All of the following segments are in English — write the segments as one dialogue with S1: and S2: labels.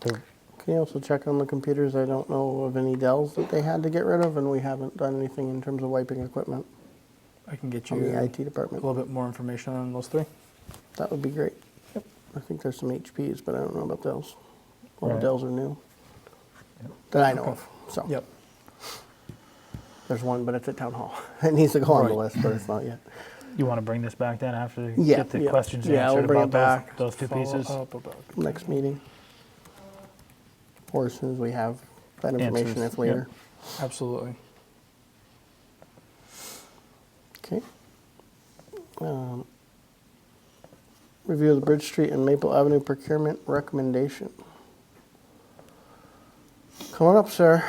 S1: Can you also check on the computers? I don't know of any Dells that they had to get rid of, and we haven't done anything in terms of wiping equipment
S2: I can get you
S1: on the IT
S2: a
S1: department.
S2: little bit more information on those three.
S1: That would be great. I think there's some HPs, but I don't know about Dells. All the
S3: Right.
S1: Dells are new. That I know of, so.
S2: Yep.
S1: There's one, but it's at town hall. It needs to go on the
S2: Right.
S1: list, but it's not yet.
S3: You want to bring this back then after you
S1: Yeah,
S3: get the
S1: yeah.
S3: questions
S1: Yeah, I'll
S3: answered
S1: bring
S3: about
S1: it back.
S3: those, those two
S2: Follow
S3: pieces?
S2: up about-
S1: Next meeting. Or as soon as we have that information,
S3: Answers,
S1: if later.
S2: Absolutely.
S1: Okay. Um, Review of the Bridge Street and Maple Avenue procurement recommendation. Come on up, sir.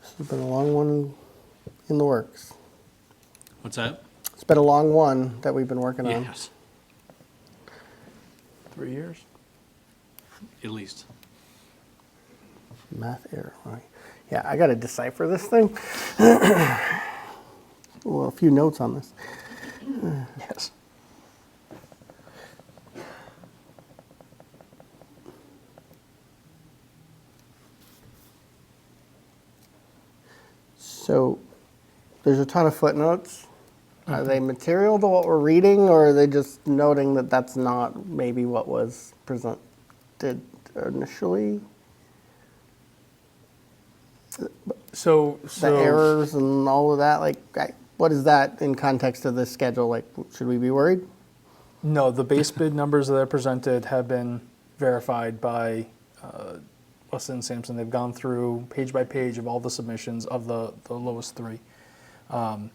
S1: This has been a long one in the works.
S4: What's that?
S1: It's been a long one that we've been working on.
S4: Yes,
S2: Three years?
S4: at least.
S1: Math error. Right. Yeah, I got to decipher this thing. well, a few notes on this.
S2: Yes.
S1: So, there's a ton of footnotes.
S2: Mm-hmm.
S1: Are they material to what we're reading, or are they just noting that that's not maybe what was presented initially?
S2: So, so.
S1: the errors and all of that. Like, I, what is that in context of this schedule? Like, should we be worried?
S2: No, the base bid numbers that I presented have been verified by uh, Weston and Sampson. They've gone through page by page of all the submissions of the, the lowest three. Um,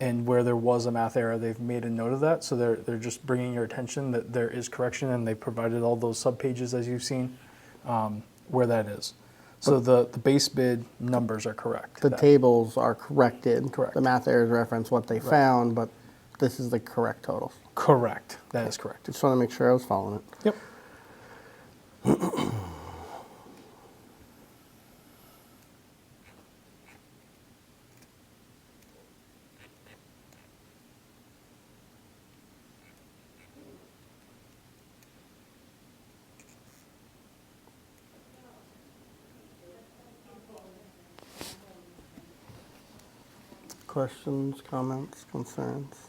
S2: and where there was a math error, they've made a note of that. So they're, they're just bringing your attention that there is correction and they provided all those sub pages as you've seen um, where that is. So the, the base bid numbers are correct.
S1: The
S2: That-
S1: tables are corrected.
S2: Correct.
S1: The math errors reference what they found, but this is the correct totals.
S2: Correct. That is correct.
S1: Just want to make sure I was following it.
S2: Yep.
S1: Questions, comments, concerns?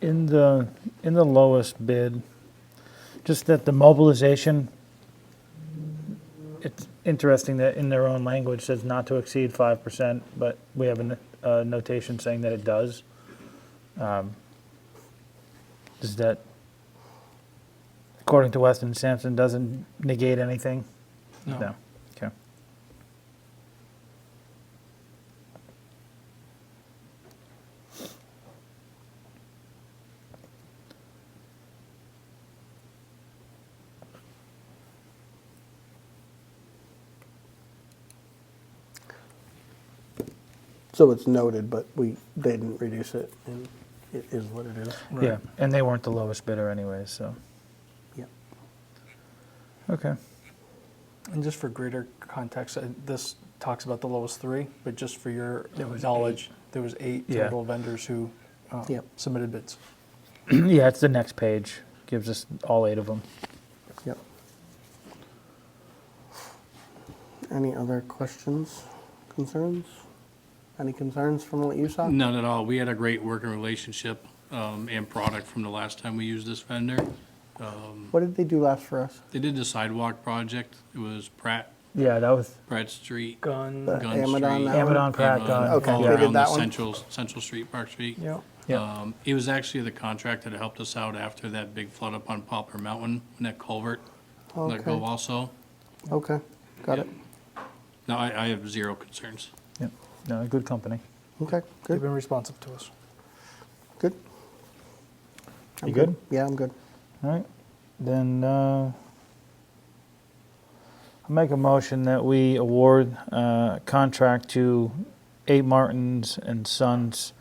S3: In the, in the lowest bid, just that the mobilization, it's interesting that in their own language says not to exceed 5%, but we have a n- a notation saying that it does. Um, Does that, according to Weston and Sampson, doesn't negate anything? No. Okay.
S1: So it's noted, but we, they didn't reduce it, and it is what it is.
S2: Right.
S3: Yeah, and they weren't the lowest bidder anyways, so,
S1: Yep.
S3: okay.
S2: And just for greater context, uh, this talks about the lowest three, but just for your
S3: There was
S2: knowledge, there was eight
S3: Yeah.
S2: total vendors who uh,
S1: Yep.
S2: submitted bids.
S3: Yeah, it's the next page, gives us all eight of them.
S1: Yep. Any other questions, concerns? Any concerns from what you saw?
S4: None at all. We had a great working relationship um, and product from the last time we used this vendor.
S1: What did they do last for us?
S4: They did the sidewalk project. It was Pratt,
S3: Yeah, that was
S4: Pratt Street.
S1: The
S2: Gun.
S4: Gun
S1: Amadon,
S4: Street.
S1: that one?
S3: Amadon Pratt
S4: and, uh,
S3: Gun.
S1: Okay,
S4: All
S1: they did
S4: around the
S1: that one?
S4: Central, Central Street, Park Street.
S2: Yep.
S3: Yeah,
S4: Um, It was actually the contractor that helped us out after that big flood up on Poplar Mountain, when that culvert let go
S1: Okay.
S4: also.
S1: Okay, got it.
S4: No, I, I have zero concerns.
S3: yeah, no, good company.
S1: Okay,
S2: They've
S1: good,
S2: been responsive to us.
S1: good. I'm
S3: You good?
S1: Yeah, I'm good.
S3: All right, then, uh, I'll make a motion that we award, uh, contract to Eight Martins and Sons